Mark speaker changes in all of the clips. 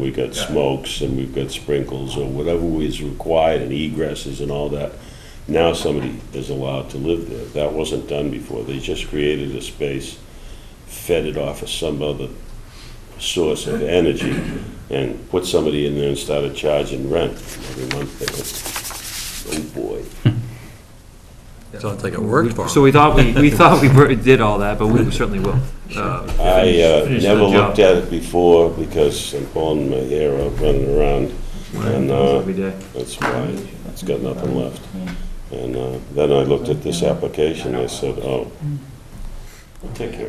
Speaker 1: We've got
Speaker 2: Yeah.
Speaker 1: smokes and we've got sprinkles or whatever is required and egresses and all that. Now somebody is allowed to live there. That wasn't done before. They just created a space, fed it off of some other source of energy and put somebody in there and started charging rent every month. They went, Oh, boy.
Speaker 3: Sounds like it worked for
Speaker 4: So
Speaker 3: him.
Speaker 4: we thought we, we thought we were- did all that, but we certainly will. Uh,
Speaker 1: I uh,
Speaker 4: finish the
Speaker 1: never
Speaker 4: job.
Speaker 1: looked at it before because I'm pulling my hair out running around. And uh,
Speaker 4: Every day.
Speaker 1: that's why it's got nothing left. And uh, then I looked at this application, I said, oh, take care.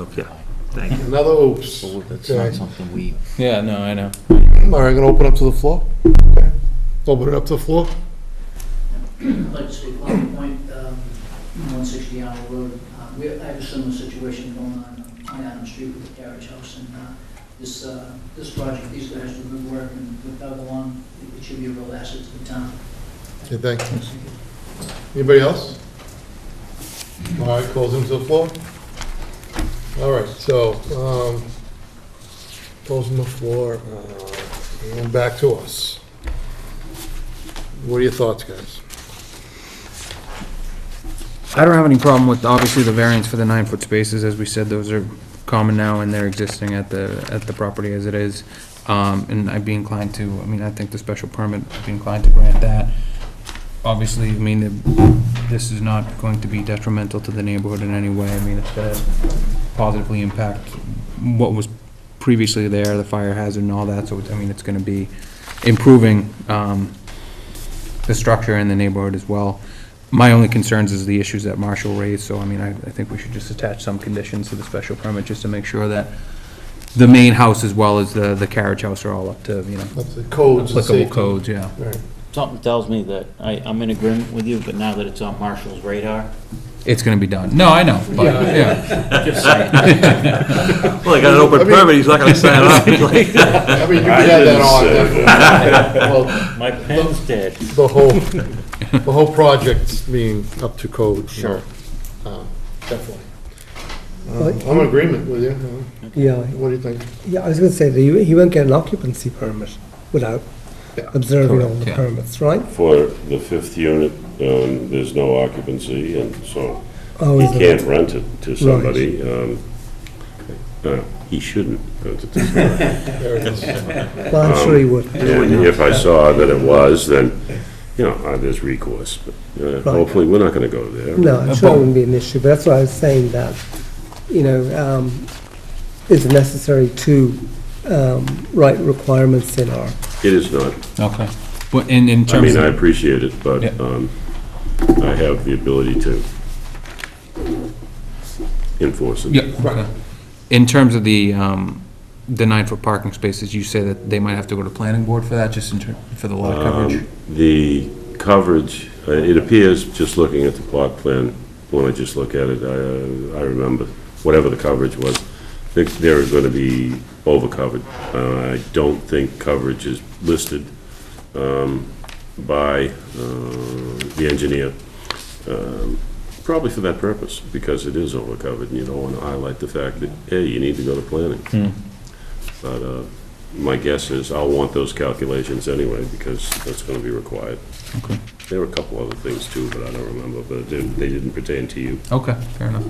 Speaker 3: Okay.
Speaker 4: Thank you.
Speaker 5: Another oops. All
Speaker 6: That's
Speaker 5: Okay.
Speaker 6: not something we,
Speaker 7: Yeah, no, I know.
Speaker 5: right, I'm gonna open up to the floor. Okay. Open it up to the floor.
Speaker 8: I'd like to say one point, um, 160 Allen Road. Uh, We I have a similar situation going on on Adams Street with the carriage house, and uh, this, uh, this project, these guys do good work, and with Doug along, it should be a real asset to the town.
Speaker 5: Okay, thank you. Anybody else? All right, close them to the floor. All right, so, um, closing the floor, uh, and back to us. What are your thoughts, guys?
Speaker 7: I don't have any problem with, obviously, the variance for the nine-foot spaces, as we said, those are common now, and they're existing at the, at the property as it is. Um, and I'd be inclined to, I mean, I think the special permit, I'd be inclined to grant that. Obviously, I mean, it- this is not going to be detrimental to the neighborhood in any way, I mean, it's gonna positively impact what was previously there, the fire hazard and all that, so, it's- I mean, it's gonna be improving, um, the structure in the neighborhood as well. My only concerns is the issues that Marshall raised, so I mean, I, I think we should just attach some conditions to the special permit, just to make sure that the main house as well as the, the carriage house are all up to, you know,
Speaker 5: Up to the codes and
Speaker 7: applicable
Speaker 5: safety.
Speaker 7: codes, yeah.
Speaker 5: All right.
Speaker 6: something tells me that I, I'm in agreement with you, but now that it's on Marshall's radar,
Speaker 7: It's gonna be done. No, I know, but, yeah.
Speaker 3: Well, he got an open
Speaker 5: I mean-
Speaker 3: permit, he's not gonna sign it off. He's like-
Speaker 5: I mean, you
Speaker 1: I
Speaker 5: can add that
Speaker 1: didn't
Speaker 5: on,
Speaker 1: say
Speaker 5: definitely. Well,
Speaker 6: my pen's dead.
Speaker 5: the whole, the whole project's being up to code. you know. Um, Definitely. Uh, I'm in agreement with you. uh,
Speaker 9: Yeah,
Speaker 5: What do you think?
Speaker 9: yeah, I was going to say that you even get an occupancy permit without
Speaker 5: Yeah.
Speaker 9: observing all
Speaker 7: Correct,
Speaker 9: the
Speaker 7: yeah.
Speaker 9: permits, right?
Speaker 1: For the fifth unit, um, there's no occupancy, and so
Speaker 9: Oh,
Speaker 1: he
Speaker 9: is it?
Speaker 1: can't rent it to somebody. um, uh, He shouldn't rent it to somebody.
Speaker 5: There it is.
Speaker 9: Well, I'm sure you would.
Speaker 1: And if I saw that it was, then, you know, uh, there's recourse, but uh, hopefully, we're not gonna go there.
Speaker 9: No, I'm sure it wouldn't be an issue, but that's why I was saying that, you know, um, it's necessary to um, write requirements in our,
Speaker 1: It is not.
Speaker 7: Okay. But in, in
Speaker 1: I
Speaker 7: terms
Speaker 1: mean, I
Speaker 7: of,
Speaker 1: appreciate it,
Speaker 7: Yeah.
Speaker 1: but um, I have the ability to enforce it.
Speaker 7: yeah, okay. In terms of the, um, the nine-foot parking spaces, you say that they might have to go to planning board for that, just in ter, for the lot coverage?
Speaker 1: Um, The coverage, uh, it appears, just looking at the plot plan, when I just look at it, I, uh, I remember, whatever the coverage was, I think they're gonna be overcovered. Uh, I don't think coverage is listed, um, by, uh, the engineer, um, probably for that purpose, because it is overcovered, and you don't wanna highlight the fact that, hey, you need to go to planning. But, uh, my guess is I'll want those calculations anyway, because that's going to be required. There were a couple other things too, but I don't remember, but they they didn't pertain to you.
Speaker 7: Okay, fair enough.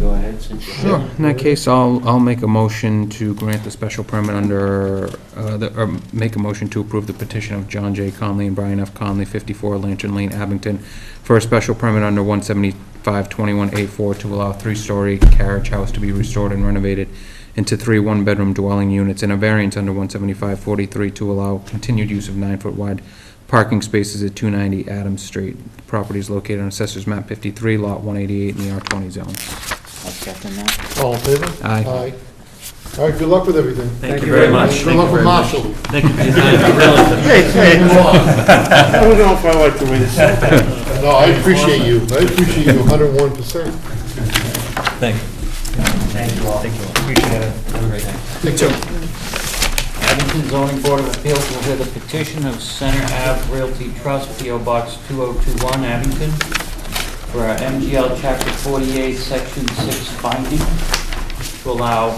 Speaker 6: Go ahead, since you're.
Speaker 7: Sure, in that case, I'll, I'll make a motion to grant the special permit under, uh, the- or make a motion to approve the petition of John J. Conley and Brian F. Conley, 54 Lantern Lane, Abington, for a special permit under 175-21A4 to allow three-story carriage house to be restored and renovated into three one-bedroom dwelling units, and a variance under 175-43 to allow continued use of nine-foot wide parking spaces at 290 Adams Street. The Property is located on Assessors Map 53, Lot 188, in the R20 zone.
Speaker 6: I'll second that.
Speaker 5: All in favor?
Speaker 7: Aye.
Speaker 5: All right, good luck with everything.
Speaker 3: Thank you very much.
Speaker 5: Good luck with Marshall.
Speaker 3: Thank you for your time.
Speaker 1: I don't know if I like the way this
Speaker 5: No, I appreciate you. I appreciate you 101%.
Speaker 3: Thank you.
Speaker 6: Thank you all. Thank you all. Appreciate it. Have a great night. Abington Zoning Board of Appeals will hear the petition of Center Ave Realty Trust, P.O. Box 2021, Abington, for our MGL Chapter 48, Section 6 finding to allow